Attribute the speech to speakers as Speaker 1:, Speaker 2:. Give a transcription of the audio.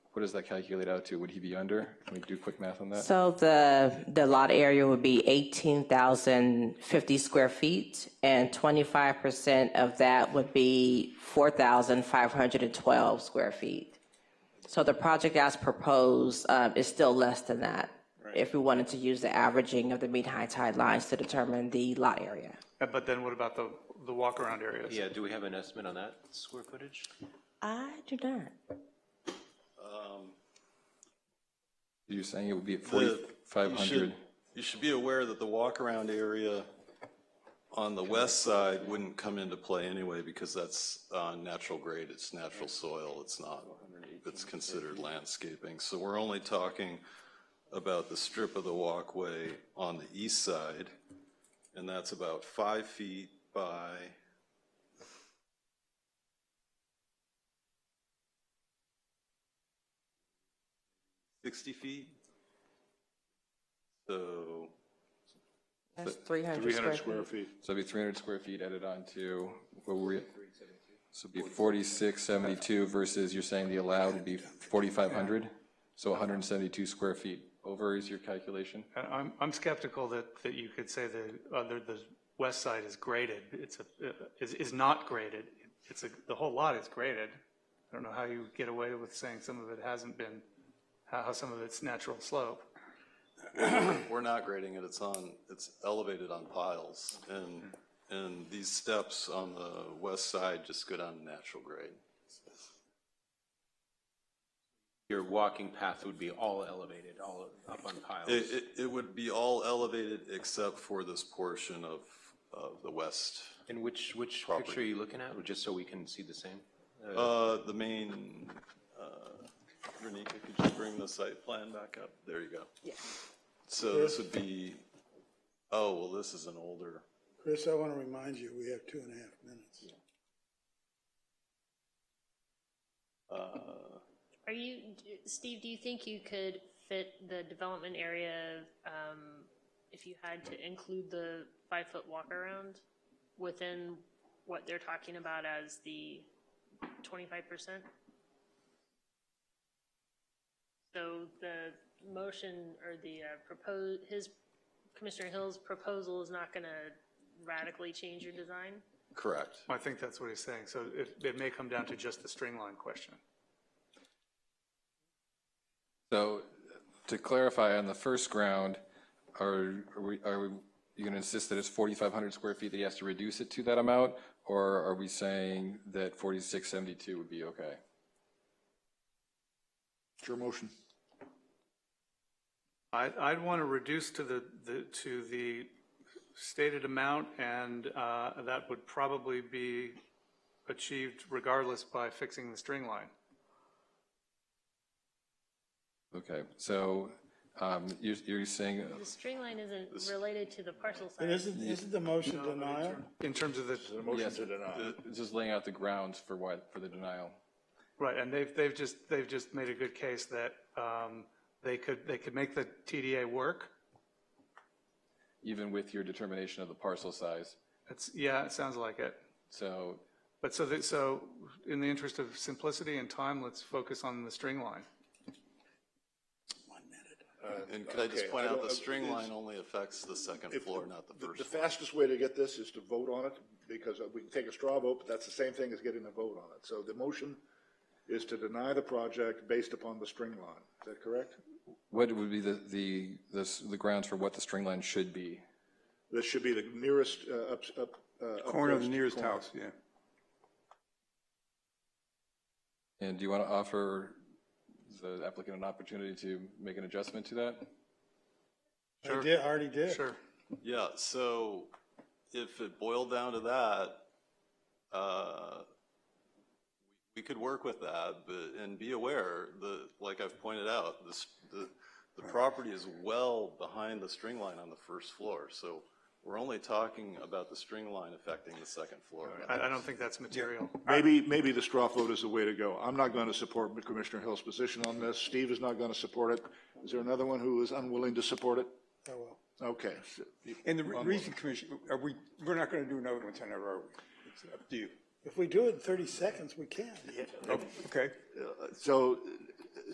Speaker 1: What does that calculate out to? Would he be under? Can we do quick math on that?
Speaker 2: So the, the lot area would be 18,050 square feet, and 25% of that would be 4,512 square feet. So the project as proposed uh, is still less than that, if we wanted to use the averaging of the mean high tide lines to determine the lot area.
Speaker 3: Uh, But then what about the, the walk-around areas?
Speaker 4: Yeah, do we have an estimate on that square footage?
Speaker 2: I do not.
Speaker 1: You're saying it would be at
Speaker 5: The- you should-
Speaker 1: 4,500?
Speaker 5: You should be aware that the walk-around area on the west side wouldn't come into play anyway, because that's uh, natural grade, it's natural soil, it's not, it's considered landscaping. So we're only talking about the strip of the walkway on the east side, and that's about five feet by, sixty feet? So,
Speaker 2: That's 300 square
Speaker 3: 300
Speaker 2: feet.
Speaker 3: square feet.
Speaker 1: So it'd be 300 square feet added on to, what were we? So it'd be 4672 versus you're saying the allowed would be 4,500? So 172 square feet over is your calculation?
Speaker 3: And I'm, I'm skeptical that, that you could say the, other, the west side is graded, it's a, uh, is, is not graded. It's a, the whole lot is graded. I don't know how you get away with saying some of it hasn't been, how, how some of it's natural slope.
Speaker 5: We're not grading it, it's on, it's elevated on piles, and, and these steps on the west side just go down to natural grade.
Speaker 4: Your walking path would be all elevated, all up on
Speaker 5: It,
Speaker 4: piles.
Speaker 5: it, it would be all elevated except for this portion of, of the west,
Speaker 4: And which, which picture are you looking at, just so we can see the same?
Speaker 5: uh, the main, uh, Renika, could you bring the site plan back up? There you go. Yeah. So this would be, oh, well, this is an older,
Speaker 6: Chris, I want to remind you, we have two and a half minutes.
Speaker 5: uh,
Speaker 7: Are you, d- Steve, do you think you could fit the development area, um, if you had to include the five-foot walk-around within what they're talking about as the twenty-five percent? So the motion or the propose, his, Commissioner Hill's proposal is not gonna radically change your design?
Speaker 5: correct.
Speaker 3: I think that's what he's saying, so it, it may come down to just the string line question.
Speaker 1: So to clarify, on the first ground, are are we, are we, you going to insist that it's 4,500 square feet that he has to reduce it to that amount? Or are we saying that 4672 would be okay?
Speaker 8: It's your motion.
Speaker 3: I, I'd want to reduce to the, the, to the stated amount, and uh, that would probably be achieved regardless by fixing the string line.
Speaker 1: Okay, so um, you're you're saying, uh,
Speaker 7: The string line isn't related to the parcel size.
Speaker 6: But isn't, isn't the motion denial?
Speaker 3: In terms of the,
Speaker 1: yes, just laying out the grounds for why, for the denial.
Speaker 3: right, and they've, they've just, they've just made a good case that um, they could, they could make the TDA work.
Speaker 1: even with your determination of the parcel size.
Speaker 3: It's, yeah, it sounds like it.
Speaker 1: So,
Speaker 3: But so, that- so in the interest of simplicity and time, let's focus on the string line.
Speaker 5: And could I just
Speaker 8: Uh, Okay,
Speaker 5: point
Speaker 8: I
Speaker 5: out,
Speaker 8: don't-
Speaker 5: the string
Speaker 8: is-
Speaker 5: line only affects the second floor, not the
Speaker 8: The-
Speaker 5: first
Speaker 8: The
Speaker 5: floor.
Speaker 8: fastest way to get this is to vote on it, because we can take a straw vote, but that's the same thing as getting a vote on it. So the motion is to deny the project based upon the string line. Is that correct?
Speaker 1: what would be the, the, the s- the grounds for what the string line should be?
Speaker 8: This should be the nearest, uh, up, up. uh,
Speaker 9: Corner of the
Speaker 8: upmost
Speaker 9: nearest
Speaker 8: corner.
Speaker 9: house, yeah.
Speaker 1: And do you want to offer the applicant an opportunity to make an adjustment to that?
Speaker 6: I did, I already did.
Speaker 3: Sure.
Speaker 5: Yeah, so if it boiled down to that, uh, we could work with that, but, and be aware, the, like I've pointed out, this, the, the property is well behind the string line on the first floor, so we're only talking about the string line affecting the second floor.
Speaker 3: I, I don't think that's material.
Speaker 8: Maybe, maybe the straw vote is the way to go. I'm not going to support Commissioner Hill's position on this. Steve is not going to support it. Is there another one who is unwilling to support it?
Speaker 6: I will.
Speaker 8: Okay.
Speaker 9: And the re- reason, Commissioner, are we, we're not going to do another one tonight, are we? It's up to you. Oh,
Speaker 6: If we do it in 30 seconds, we can.
Speaker 9: Okay,
Speaker 8: So